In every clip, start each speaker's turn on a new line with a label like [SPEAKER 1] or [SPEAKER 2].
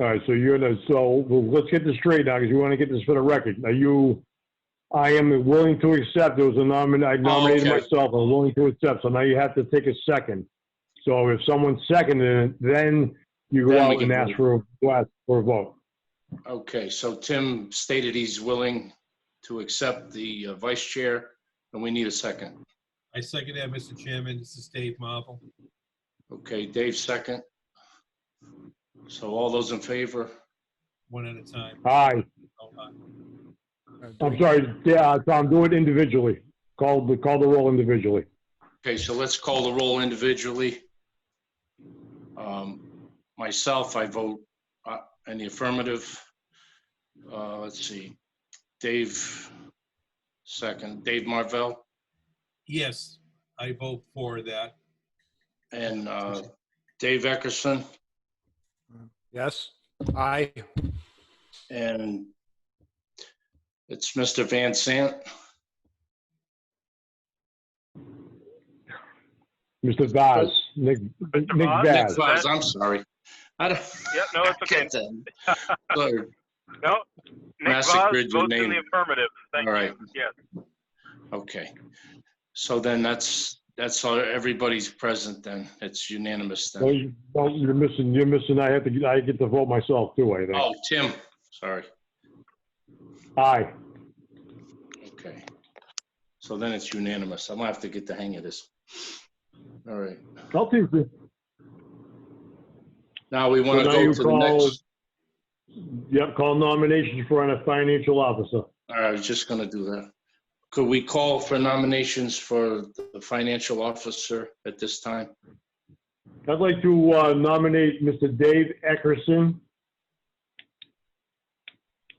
[SPEAKER 1] All right, so you're the, so well, let's get this straight now, because we want to get this for the record. Are you, I am willing to accept, there was a nomin, I nominated
[SPEAKER 2] Oh, okay.
[SPEAKER 1] myself, I'm willing to accept, so now you have to take a second. So if someone seconded it, then you go
[SPEAKER 2] Then we
[SPEAKER 1] out
[SPEAKER 2] can
[SPEAKER 1] and ask
[SPEAKER 2] vote.
[SPEAKER 1] for a, request for a vote.
[SPEAKER 2] Okay, so Tim stated he's willing to accept the uh, vice chair, and we need a second.
[SPEAKER 3] I second that, Mr. Chairman. This is Dave Marvel.
[SPEAKER 2] Okay, Dave, second. So all those in favor?
[SPEAKER 3] One at a time.
[SPEAKER 1] Aye,
[SPEAKER 3] Oh, aye.
[SPEAKER 1] I'm sorry, yeah, Tom, do it individually. Call the, call the roll individually.
[SPEAKER 2] Okay, so let's call the roll individually. Um, Myself, I vote uh, in the affirmative. Uh, Let's see, Dave, second, Dave Marvell,
[SPEAKER 3] Yes, I vote for that.
[SPEAKER 2] and uh, Dave Eckerson,
[SPEAKER 4] Yes, aye.
[SPEAKER 2] and it's Mr. Van Sant.
[SPEAKER 1] Mr. Vaz, Nick, Nick
[SPEAKER 5] Vaz?
[SPEAKER 2] Nick
[SPEAKER 1] Vaz.
[SPEAKER 2] Vaz, I'm sorry. I don't
[SPEAKER 5] Yeah, no, it's okay.
[SPEAKER 2] get that. Sorry.
[SPEAKER 5] No, Nick Voss
[SPEAKER 2] Massacred your
[SPEAKER 5] votes in the
[SPEAKER 2] name.
[SPEAKER 5] affirmative. Thank
[SPEAKER 2] All right.
[SPEAKER 5] you. Yes.
[SPEAKER 2] Okay. So then that's, that's all, everybody's present then. It's unanimous
[SPEAKER 1] Well,
[SPEAKER 2] then.
[SPEAKER 1] you- well, you're missing, you're missing, I have to, I get to vote myself too, I think.
[SPEAKER 2] Oh, Tim, sorry. Oh.
[SPEAKER 1] Aye.
[SPEAKER 2] Okay. So then it's unanimous. I'm gonna have to get the hang of this. All right.
[SPEAKER 1] I'll take the-
[SPEAKER 2] Now we want to
[SPEAKER 1] So now you
[SPEAKER 2] go to the
[SPEAKER 1] call-
[SPEAKER 2] next.
[SPEAKER 1] Yep, call nominations for a financial officer.
[SPEAKER 2] All right, I was just gonna do that. Could we call for nominations for the financial officer at this time?
[SPEAKER 1] I'd like to uh, nominate Mr. Dave Eckerson.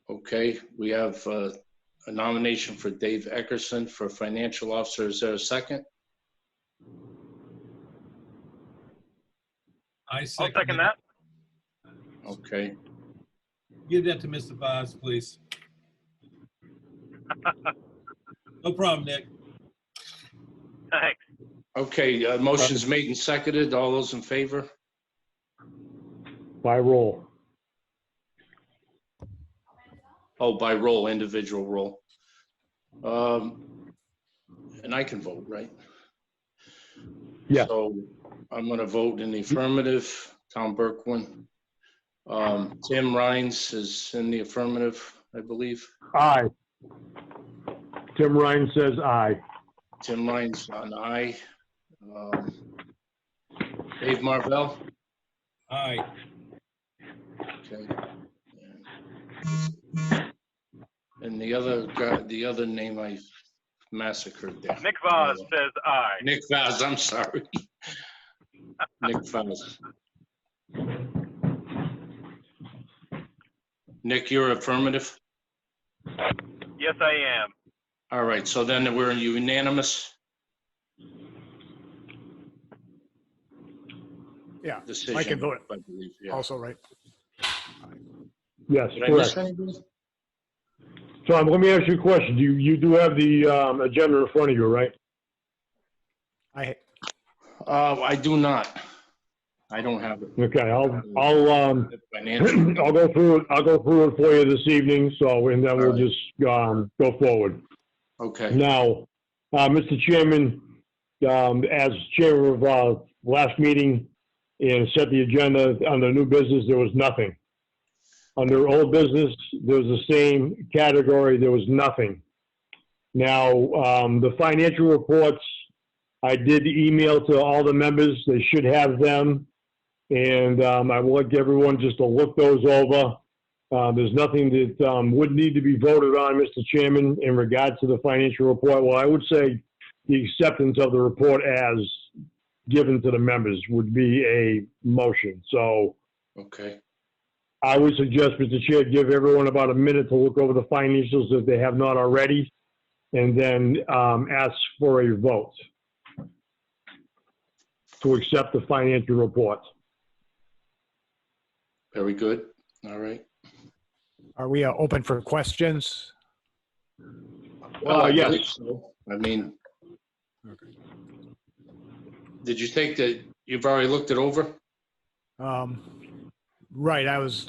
[SPEAKER 2] Okay, we have uh, a nomination for Dave Eckerson for Financial Officer. Is there a second?
[SPEAKER 3] I
[SPEAKER 5] I'll
[SPEAKER 3] second.
[SPEAKER 5] second that.
[SPEAKER 2] Okay,
[SPEAKER 3] Give that to Mr. Vaz, please. No problem, Nick.
[SPEAKER 5] Thanks.
[SPEAKER 2] okay, uh, motion's made and seconded. All those in favor?
[SPEAKER 1] By roll.
[SPEAKER 2] Oh, by roll, individual roll. Um, And I can vote, right?
[SPEAKER 1] Yeah.
[SPEAKER 2] So I'm going to vote in the affirmative. Tom Berkwin. Um, Tim Rhines is in the affirmative, I believe.
[SPEAKER 1] Aye. Tim Ryan says aye.
[SPEAKER 2] Tim Rhines, an aye. Um, Dave Marvell?
[SPEAKER 3] Aye.
[SPEAKER 2] Okay. And the other, guy- the other name I massacred there.
[SPEAKER 5] Nick Voss says aye.
[SPEAKER 2] Nick Vaz, I'm sorry. Nick Vaz. Nick, you're affirmative?
[SPEAKER 5] Yes, I am.
[SPEAKER 2] All right, so then we're unanimous
[SPEAKER 4] Yeah,
[SPEAKER 2] decision.
[SPEAKER 4] I can vote
[SPEAKER 2] I believe, yeah.
[SPEAKER 4] also, right?
[SPEAKER 1] Yes,
[SPEAKER 2] Did I miss
[SPEAKER 1] correct.
[SPEAKER 2] anybody?
[SPEAKER 1] Tom, let me ask you a question. You, you do have the um, agenda in front of you, right?
[SPEAKER 4] I,
[SPEAKER 2] Uh, I do not. I don't have it.
[SPEAKER 1] Okay, I'll, I'll, um,
[SPEAKER 2] Financial.
[SPEAKER 1] I'll go through, it. I'll go through it for you this evening, so, and then we'll
[SPEAKER 2] All right.
[SPEAKER 1] just, um, go forward.
[SPEAKER 2] Okay,
[SPEAKER 1] Now, uh, Mr. Chairman, um, as chair of, uh, last meeting and set the agenda under new business, there was nothing. Under old business, there was the same category, there was nothing. Now, um, the financial reports, I did email to all the members, they should have them. And, um, I would like everyone just to look those over. Uh, There's nothing that um, would need to be voted on, Mr. Chairman, in regards to the financial report. Well, I would say the acceptance of the report as given to the members would be a motion. So
[SPEAKER 2] okay,
[SPEAKER 1] I would suggest, Mr. Chair, give everyone about a minute to look over the financials if they have not already, and then um, ask for a vote to accept the financial report.
[SPEAKER 2] very good. All right.
[SPEAKER 4] are we uh, open for questions?
[SPEAKER 2] Well, I
[SPEAKER 1] yes.
[SPEAKER 2] believe so. I mean, did you think that you've already looked it over?
[SPEAKER 4] Um, Right, I was